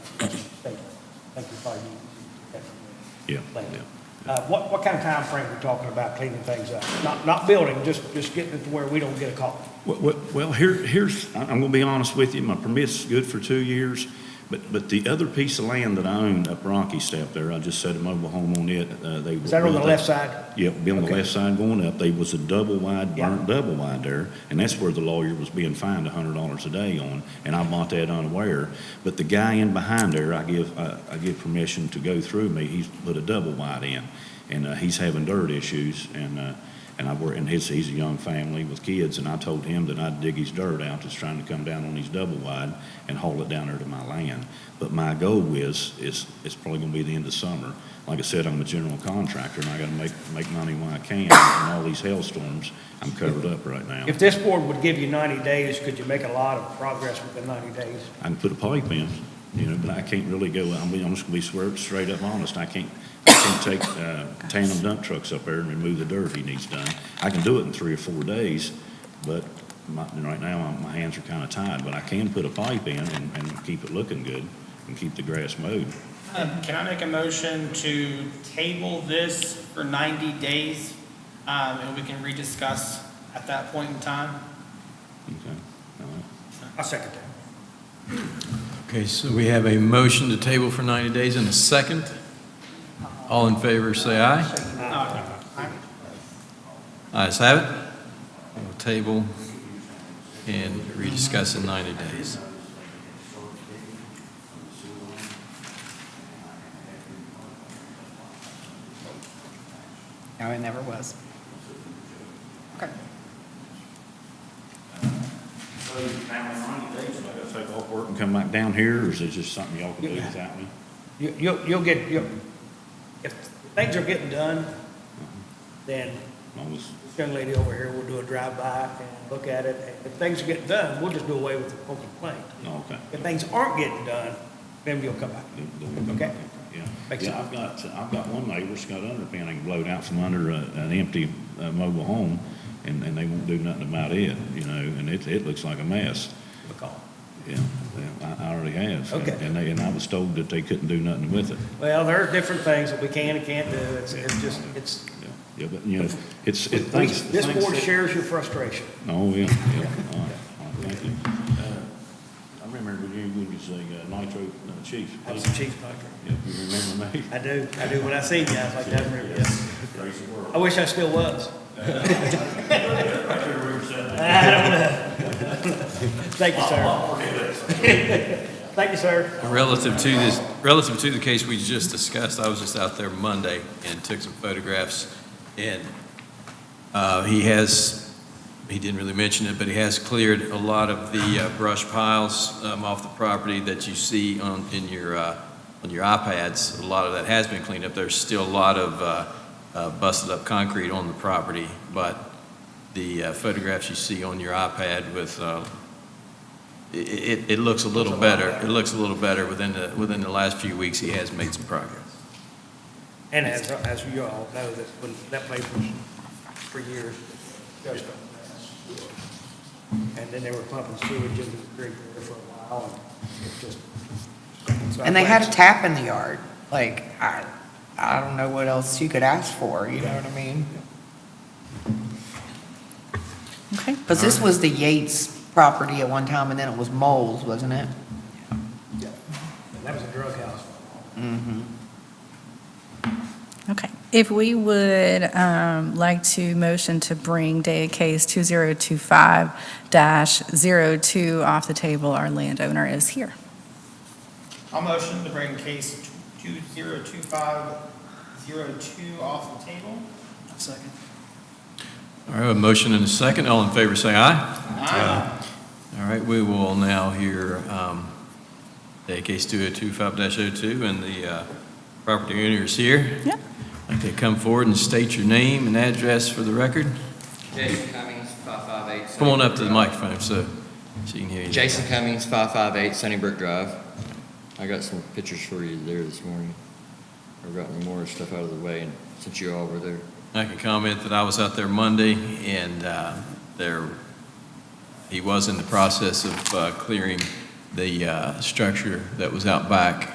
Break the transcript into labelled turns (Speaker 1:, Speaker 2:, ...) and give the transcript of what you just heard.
Speaker 1: think we probably need that
Speaker 2: Yeah,
Speaker 1: plan.
Speaker 2: yeah.
Speaker 1: Uh, what, what kind of time frame we talking about cleaning things up? Not, not building, just, just getting it to where we don't get a call.
Speaker 2: Well- Well, well, here, here's, I- I'm going to be honest with you, my permit's good for two years, but, but the other piece of land that I own up Rocky Step there, I just set a mobile home on it, uh, they.
Speaker 1: Is that on the left side?
Speaker 2: Yeah, be on the
Speaker 1: Okay.
Speaker 2: left side going up, they was a double wide,
Speaker 1: Yeah.
Speaker 2: burnt double wide there, and that's where the lawyer was being fined a hundred dollars a day on, and I bought that unaware. But the guy in behind there, I give, I, I give permission to go through me, he's put a double wide in, and, uh, he's having dirt issues, and, uh, and I work, and his, he's a young family with kids, and I told him that I'd dig his dirt out that's trying to come down on his double wide and haul it down there to my land. But my goal is, is, it's probably gonna be the end of summer. Like I said, I'm a general contractor, and I gotta make, make money when I can, and all these hailstorms, I'm covered up right now.
Speaker 1: If this board would give you 90 days, could you make a lot of progress within 90 days?
Speaker 2: I can put a pipe in, you know, but I can't really go, I'm, I'm just gonna be swear, straight up honest, I can't, I can't take, uh, tandem dump trucks up there and remove the dirt if he needs done. I can do it in three or four days, but my, right now, my hands are kinda tied, but I can put a pipe in and, and keep it looking good, and keep the grass mowed.
Speaker 3: Um, Can I make a motion to table this for 90 days, um, and we can rediscuss at that point in time?
Speaker 2: Okay, all right.
Speaker 1: I second that.
Speaker 4: Okay, so we have a motion to table for 90 days and a second. All in favor, say aye. Ayes have it. We'll table and rediscuss in 90 days.
Speaker 5: No, it never was. Okay.
Speaker 2: So now in ninety days, I gotta take off work and come back down here, or is it just something y'all can do without me?
Speaker 1: You, you'll, you'll get, you'll, if things are getting done, then
Speaker 2: I was,
Speaker 1: this young lady over here will do a drive-by and look at it. If things are getting done, we'll just do away with the open complaint.
Speaker 2: no, oh, okay.
Speaker 1: If things aren't getting done, then you'll come back. Okay.
Speaker 2: Yeah,
Speaker 1: Makes
Speaker 2: yeah, I've got, I've got one neighbor that's got underpinning blowed out from under a, an empty, uh, mobile home, and, and they won't do nothing about it, you know, and it, it looks like a mess.
Speaker 1: Because-
Speaker 2: Yeah, yeah, I, I already have.
Speaker 1: Okay.
Speaker 2: And they, and I was told that they couldn't do nothing with it.
Speaker 1: Well, there are different things that we can and can't do. It's, it's just, it's,
Speaker 2: Yeah, Yeah, but, you know, it's, it,
Speaker 1: we-
Speaker 2: things.
Speaker 1: this
Speaker 2: things
Speaker 1: board
Speaker 2: that-
Speaker 1: shares your frustration.
Speaker 2: Oh, yeah, yeah, all right, all right, thank you. Uh, I remember you when you was a uh, nitro uh, chief.
Speaker 1: I was the chief doctor.
Speaker 2: Yeah, you remember me?
Speaker 1: I do, I do. When I see you, I was like, I remember you.
Speaker 2: Praise the world.
Speaker 1: I wish I still was.
Speaker 2: I sure remember saying that.
Speaker 1: Thank you, sir. Thank you, sir.
Speaker 4: Relative to this, relative to the case we just discussed, I was just out there Monday and took some photographs. And uh, he has, he didn't really mention it, but he has cleared a lot of the uh, brush piles um, off the property that you see on, in your, uh, on your iPads. A lot of that has been cleaned up. There's still a lot of uh, uh, busted up concrete on the property, but the uh, photographs you see on your iPad with uh, it, it, it looks a little better, it looks a little better within the, within the last few weeks, he has made some progress.
Speaker 1: And as, as you all know, that, when that place was for years, just a mess. And then they were pumping sewage into the creek there for a while, and it just. so I
Speaker 5: And they had a
Speaker 1: think-
Speaker 5: tap in the yard. Like, I, I don't know what else you could ask for, you know what I mean? Okay, because this was the Yates property at one time, and then it was Moles, wasn't it?
Speaker 1: Yeah. And that was a drug house.
Speaker 6: Okay. If we would um, like to motion to bring Data Case 2025-02 off the table, our landowner is here.
Speaker 3: I'll motion to bring case 2025-02 off the table.
Speaker 1: Second.
Speaker 4: All right, a motion and a second, all in favor say aye.
Speaker 3: Aye.
Speaker 4: All right, we will now hear, um, day case 2025-02, and the, uh, property owner is here.
Speaker 6: Yep.
Speaker 4: Like they come forward and state your name and address for the record.
Speaker 7: Jason Cummings, 558.
Speaker 4: Come on up to the
Speaker 7: Sunnybrook
Speaker 4: microphone so she can hear you.
Speaker 7: Drive. Jason Cummings, 558 Sunnybrook Drive. I got some pictures for you there this morning. I've gotten more stuff out of the way and since you all were there.
Speaker 4: I can comment that I was out there Monday, and uh, there, he was in the process of uh, clearing the uh, structure that was out back